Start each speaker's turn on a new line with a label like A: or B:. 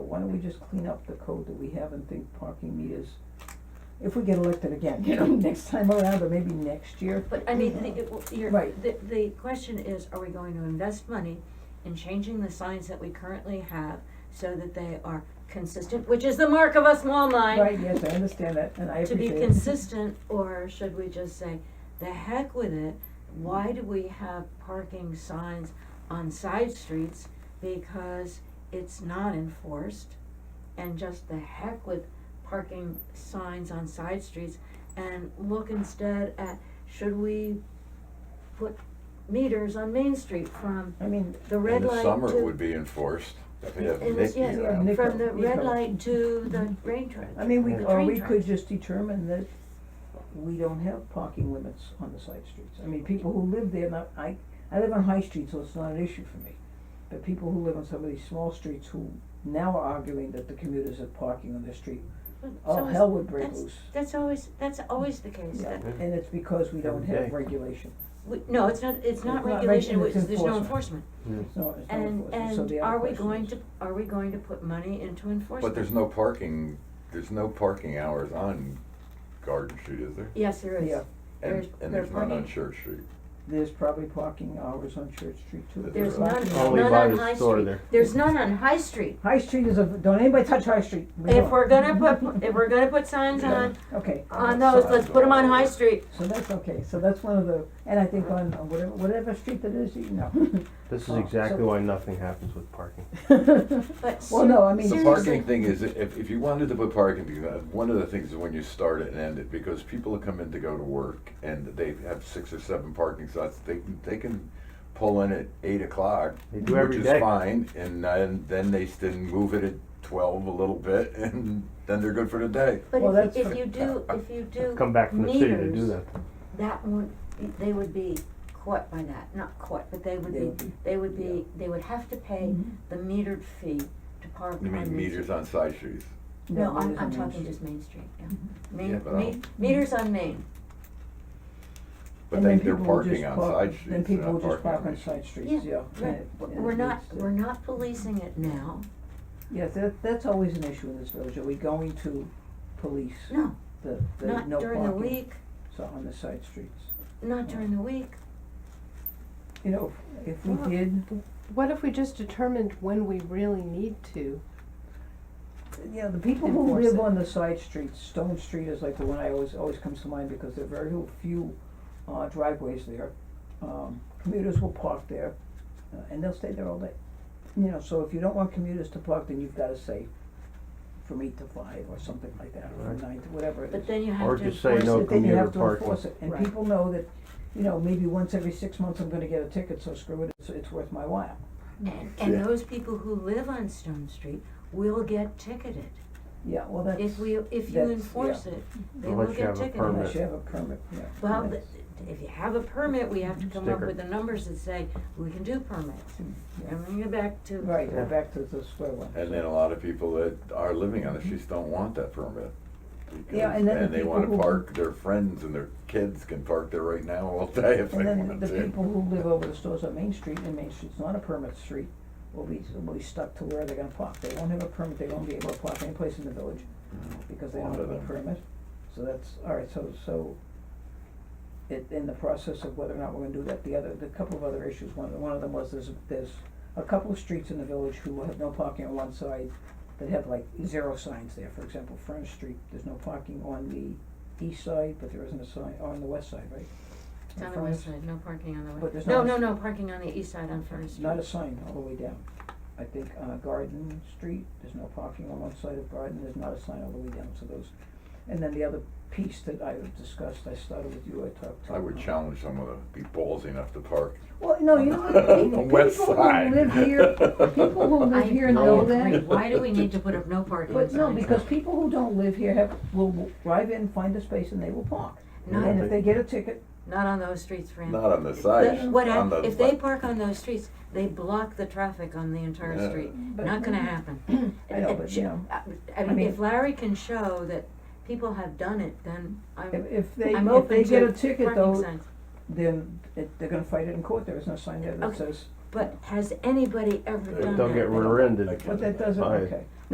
A: why don't we just clean up the code that we have and think parking meters? If we get elected again, you know, next time around, or maybe next year,
B: But I mean, the, it- your,
A: Right.
B: the, the question is, are we going to invest money in changing the signs that we currently have so that they are consistent, which is the mark of a small mind?
A: right, yes, I understand that, and I
B: To be
A: appreciate it.
B: consistent, or should we just say, the heck with it, why do we have parking signs on side streets? Because it's not enforced, and just the heck with parking signs on side streets, and look instead at, should we put meters on Main Street from
A: I mean,
B: the red light to.
C: In the summer it would be enforced, if you have
B: And
C: Nick
B: yes,
C: around.
A: Yeah, Nick
B: from the red
A: Nico.
B: light to the rain trail.
A: I mean, we,
B: The
A: or
B: train
A: we could
B: tracks.
A: just determine that we don't have parking limits on the side streets. I mean, people who live there, not, I, I live on High Street, so it's not an issue for me. But people who live on some of these small streets who now are arguing that the commuters are parking on their street,
B: Well, so
A: all
B: is-
A: hell would break
B: that's-
A: loose.
B: That's always, that's always the case,
A: Yeah,
B: that,
A: and it's because we don't have
C: Every day.
A: regulation,
B: we, no, it's not, it's not
A: It's not
B: regulation,
A: regulation,
B: it's-
A: it's
B: there's no enforcement.
A: enforcement.
D: Mm.
A: so it's not enforcement, so
B: And,
A: the
B: and
A: other
B: are we
A: question
B: going
A: is-
B: to, are we going to put money into enforcement?
C: But there's no parking, there's no parking hours on Garden Street, is there?
B: Yes, there is,
A: Yeah.
B: there's,
C: And, and
B: there's
C: there's none on
B: parking,
C: Church Street.
A: There's probably parking hours on Church Street too.
C: There's
B: there's
C: not.
B: none,
C: Only
B: none
D: by
B: on
D: the
B: High
D: store
B: Street,
D: there.
B: there's none on High Street.
A: High Street is a, don't anybody touch High Street. We
B: If
A: don't. Mm-hmm.
B: we're gonna put, if we're gonna put signs
C: Yeah.
B: on,
A: Okay,
B: on those, let's put them on High
C: Signs.
B: Street,
A: So that's okay, so that's one of the, and I think on on whatever, whatever street that is, you know.
D: This
A: Oh,
D: is exactly
A: so-
D: why nothing happens with parking.
B: but
A: Well, no, I mean-
C: The
B: seriously.
C: parking thing is, if, if you wanted to put parking, because one of the things is when you start it and end it, because people come in to go to work and they have six or seven parking spots, they, can- they can pull in at eight o'clock,
D: They do every
C: which
D: day.
C: is fine, and then, then they then move it at twelve a little bit, and then they're good for the day.
B: But
A: Well,
B: if,
A: that's
B: if
A: for-
B: you do, if you do
D: Come back from the city to do
B: meters,
D: that.
B: that would, they would be caught by that, not caught, but they would
A: They would
B: be,
A: be-
B: they would
A: yeah.
B: be, they would have to pay
A: Mhm.
B: the metered fee to park on
C: You
B: Main
C: mean meters
B: Street.
C: on side streets?
A: it is
B: No, I'm, I'm
A: on Main
B: talking
A: Street.
B: just Main Street, yeah.
C: Yeah,
B: Main,
C: but I
B: main,
C: don't-
B: meters on Main,
C: But
A: And
C: they,
A: then
C: they're
A: people will
C: parking
A: just
C: on
A: park-
C: side streets.
A: Then
C: they're
A: people will
C: not
A: just park on
C: main
A: side
C: streets.
A: streets, yeah. uh,
B: yeah, right,
A: and-
B: W-
A: and
B: we're
A: it
B: not,
A: needs to-
B: we're not policing it now,
A: Yeah, that, that's always an issue in this village, are we going to police
B: no,
A: the, the no
B: not
A: parking?
B: during the week,
A: So on the side streets,
B: not during the week,
A: you know, if if we
E: Well,
A: did,
E: What if we just determined when we really need to?
A: Yeah, the people who
E: Enforce
A: live
E: it.
A: on the side streets, Stone Street is like the one I always, always comes to mind because there are very few uh, driveways there. Um, commuters will park there, uh, and they'll stay there all day. You know, so if you don't want commuters to park, then you've gotta say from eight to five or something like that, or from
D: Right.
A: nine to whatever it
B: but
A: is.
B: then you have
D: Or
B: to
D: just say
B: enforce
D: no
B: it.
A: But then you
D: commuter
A: have to
D: parking.
A: enforce it, and
E: Right.
A: people know that, you know, maybe once every six months I'm gonna get a ticket, so screw it, it's, it's worth my while.
B: And, and
C: Yeah.
B: those people who live on Stone Street will get ticketed.
A: Yeah, well, that's,
B: If we, if you
A: that's- yeah.
B: enforce it, they will
D: Unless you
B: get
D: have a
B: ticketed.
D: permit.
A: unless you have a permit, yeah.
B: Well,
A: that's-
B: th- if you have a permit, we have to come up
D: Sticker.
B: with the numbers that say, we can do permits.
A: yeah.
B: And we get back to.
A: Right,
D: Yeah.
A: we're back to the square one.
C: And then a lot of people that are living on the streets don't want that permit.
A: Mm-hmm. Yeah, and then the
C: because- they
A: people
C: wanna
A: who-
C: park, their friends and their kids can park there right now all day if they
A: And
C: want
A: then
C: to.
A: the people who live over the stores on Main Street, and Main Street's not a permit street, will be, will be stuck to where they're gonna park. They won't have a permit, they won't be able to park any place in the village because they
C: A
A: don't
C: lot
A: have
C: of
A: a
C: them.
A: permit. So that's, all right, so, so it, in the process of whether or not we're gonna do that, the other, the couple of other issues, one, one of them was there's, there's a couple of streets in the village who have no parking on one side that have like zero signs there. For example, Fern Street, there's no parking on the east side, but there isn't a sign, on the west side, right?
B: It's on the
A: Fern
B: west
A: Street.
B: side, no parking on the
A: But
B: west.
A: there's
B: No,
A: not
B: no,
A: a-
B: no, parking on the east side on Furnace
A: It's not a
B: Street.
A: sign all the way down. I think, uh, Garden Street, there's no parking on one side of Garden, there's not a sign all the way down to those. And then the other piece that I discussed, I started with you, I talked to.
C: I would
A: uh,
C: challenge someone to be ballsy enough to park.
A: Well, no, you know, what,
C: on the
A: people,
C: west
A: people
C: side.
A: who live here, people who
B: I,
A: live here
B: I
A: know
B: agree.
A: that.
B: Why do we need to put up no parking
A: But
B: signs?
A: no, because people who don't live here have, will will drive in, find a space and they will park.
B: No.
A: And if they get a ticket,
B: Not on those streets,
A: Mm.
B: Fran.
C: Not on the
B: The-
C: side,
B: What
C: on
B: hap-
C: the.
B: if they park on those streets, they block the traffic on the entire
C: Yeah.
B: street.
A: But-
B: Not gonna happen.
A: I know,
B: It- it
A: but,
B: sh-
A: you know,
B: I- I
A: I
B: mean,
A: mean-
B: if Larry can show that people have done it, then I'm,
A: if, if they,
B: I'm
A: if they
B: open
A: get a
B: to
A: ticket
B: parking
A: though,
B: signs.
A: then it, they're gonna fight it in court, there is no sign there that
B: Okay.
A: says,
B: But has anybody ever
C: They
B: done that?
D: They'll get rear-ended.
C: Like-
D: uh,
A: But that doesn't,
D: Fine.
A: okay,